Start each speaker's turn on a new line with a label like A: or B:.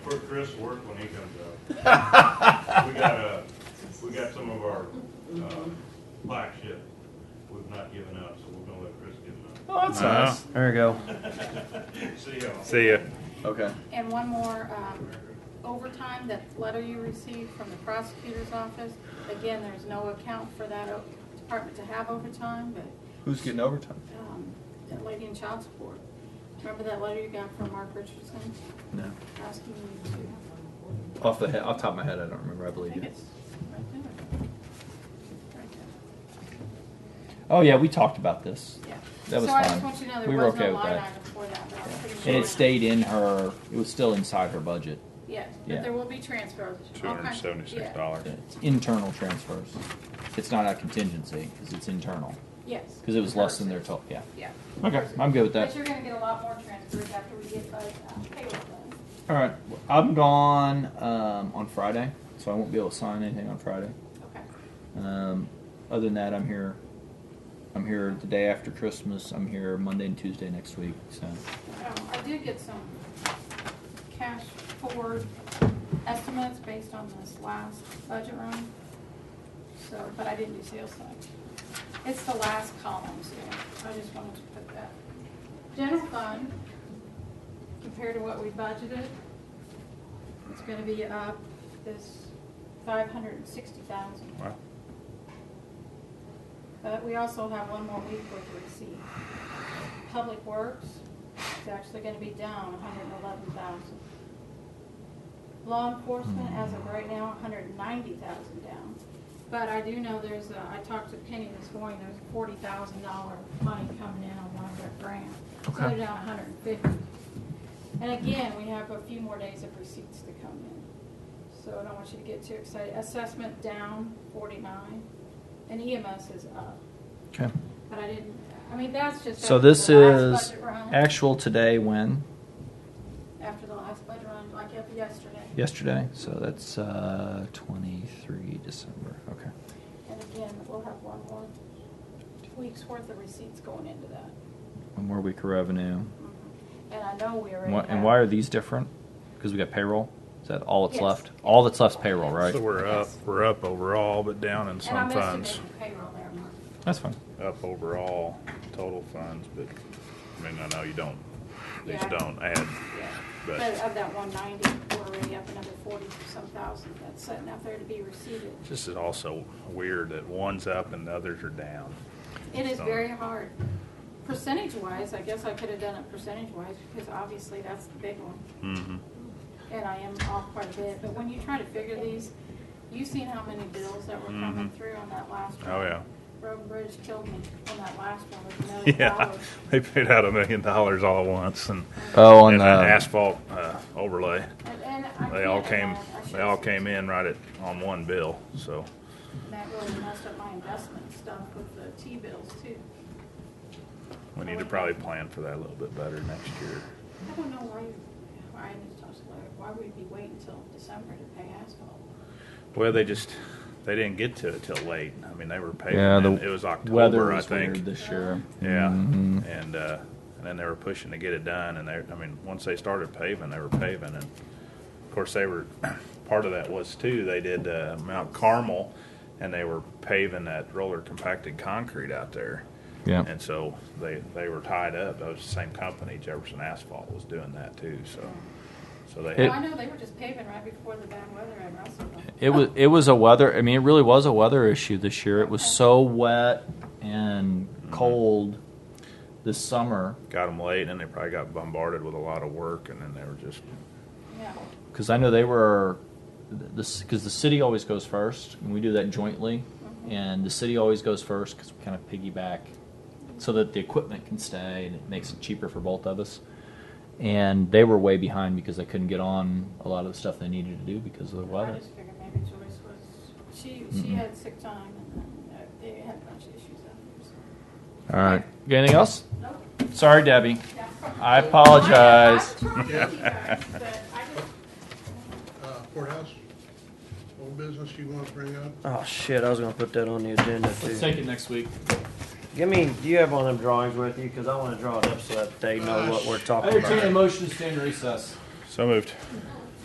A: put Chris to work when he comes up. We got a, we got some of our, um, flagship we've not given up, so we're gonna let Chris give them
B: Oh, that's
C: Oh.
B: nice. There you go.
A: up. See y'all.
C: See ya.
B: Okay.
D: And one more, um, overtime, that letter you received from the prosecutor's office, again, there's no account for that o- department to have overtime, but,
B: Who's getting overtime?
D: um, that lady in child support. Remember that letter you got from Mark Richardson
B: No.
D: asking you to have,
B: Off the head, off the top of my head, I don't remember. I
D: I
B: believe
D: think
B: you.
D: it's right there. Right there,
E: Oh yeah, we talked about this.
D: yeah.
E: That was
D: So I just
E: fine.
D: want you to know there
E: We were
D: was
E: okay
D: no
E: with
D: line
E: that.
D: item for that, but I'm pretty sure.
E: And it stayed in her. It was still inside her budget.
D: Yes,
E: yeah.
D: but there will be transfers. all
C: Two hundred and
D: kinds-
C: seventy-six
D: yeah,
C: dollars.
E: It's internal transfers. It's not a contingency because it's internal.
D: Yes.
E: Because it was less than their total. Yeah.
D: Yeah.
E: Okay, I'm good with
D: But
E: that.
D: you're gonna get a lot more transfers after we get those uh, payroll done.
E: All right, I'm gone um, on Friday, so I won't be able to sign anything on Friday.
D: Okay.
E: Um, other than that, I'm here. I'm here the day after Christmas. I'm here Monday and Tuesday next week. So
D: Um, I did get some cash forward estimates based on this last budget run. So, but I didn't do sales tax. It's the last column, so I just wanted to put that. General fund, compared to what we budgeted, it's gonna be up this five hundred and sixty thousand.
C: Wow.
D: But we also have one more week worth of receipt. Public Works is actually gonna be down hundred and eleven thousand. Law enforcement, as of right now, hundred and ninety thousand down. But I do know there's, a- I talked to Penny this morning, there's forty thousand dollar money coming in on one of their grants. So
E: Okay.
D: they're down hundred and fifty. And again, we have a few more days of receipts to come in. So I don't want you to get too excited. Assessment down forty-nine, and EMS is up.
E: okay.
D: But I didn't, I mean, that's just.
E: So
D: after
E: this
D: the last
E: is
D: budget run.
E: actual today when
D: After the last budget run, like of yesterday.
E: yesterday. So that's uh, 23 December. Okay.
D: And again, we'll have one more week's worth of receipts going into that.
E: One more week of revenue.
D: Mhm. And I know we already
E: Wha-
D: have.
E: and why are these different? Because we got payroll. Is that all that's
D: Yes.
E: left? All that's left's payroll, right?
C: So we're up, we're up overall, but down in
D: And
C: some
D: I'm
C: funds.
D: estimating payroll there, Mark.
E: That's fine.
C: Up overall, total funds, but, I mean, I know you don't, these
D: Yeah.
C: don't add,
D: Yeah.
C: But-
D: But of that one ninety, we're already up another forty some thousand that's sitting out there to be received.
C: this is also weird that one's up and the others are down.
D: It is
C: So-
D: very hard. Percentage wise, I guess I could have done it percentage wise because obviously that's the big one.
C: Mm-hmm.
D: And I am off quite a bit, but when you try to figure these, you seen how many bills that were coming
C: Mhm.
D: through on that last one.
C: Oh, yeah.
D: Road and Bridge killed me on that last one with a million
C: Yeah,
D: dollars.
C: they paid out a million dollars all at once and,
E: Oh, on
C: and an
E: the
C: asphalt, uh, overlay.
D: And, and I
C: They all
D: can't
C: came,
D: imagine- I
C: they all
D: should've-
C: came in right at, on one bill, so.
D: That really messed up my investment stuff with the T-bills too.
C: We need to probably plan for that a little bit better next year.
D: I don't know why, why I need to talk to Larry, why would we wait until December to pay asphalt?
C: Well, they just, they didn't get to it till late. I mean, they were paving,
E: Yeah, the
C: in- it was
E: weather
C: October, I
E: was weird
C: think.
E: this year.
C: Yeah,
E: Mhm.
C: and, uh, and then they were pushing to get it done and they, I mean, once they started paving, they were paving and of course they were, part of that was too, they did, uh, Mount Carmel and they were paving that roller compacted concrete out there.
E: Yeah.
C: And so they, they were tied up. That was the same company, Jefferson Asphalt was doing that too, so, so they.
E: It-
D: Well, I know they were just paving right before the bad weather at Russellville.
E: It was it was a weather. I mean, it really was a weather issue this year. It was so wet and cold this summer
C: got them late, and they probably got bombarded with a lot of work, and then they were just
D: Yeah,
E: because I know they were this because the city always goes first, and we do that jointly, and the city always goes first because we kind of piggyback so that the equipment can stay and it makes it cheaper for both of us. And they were way behind because they couldn't get on a lot of the stuff they needed to do because of the
D: I
E: weather.
D: just figured maybe Joyce was, she, she
E: Mm-mm.
D: had sick time and then uh, they had a bunch of issues out there, so.
E: All right, got anything else?
D: Nope,
E: Sorry, Debbie.
D: that's fine.
E: I apologize.
D: I'm trying to keep guys, but I just-
F: Uh, courthouse, old business you want to bring up?
G: Oh shit! I was gonna put that on the agenda
E: Let's
G: too.
E: take it next week.
G: Give me. Do you have one of them drawings with you? Because I want to draw it up so that they know what we're
E: Uh, I
G: talking
E: entertain a
G: about.
E: motion to stay in recess.
C: so moved.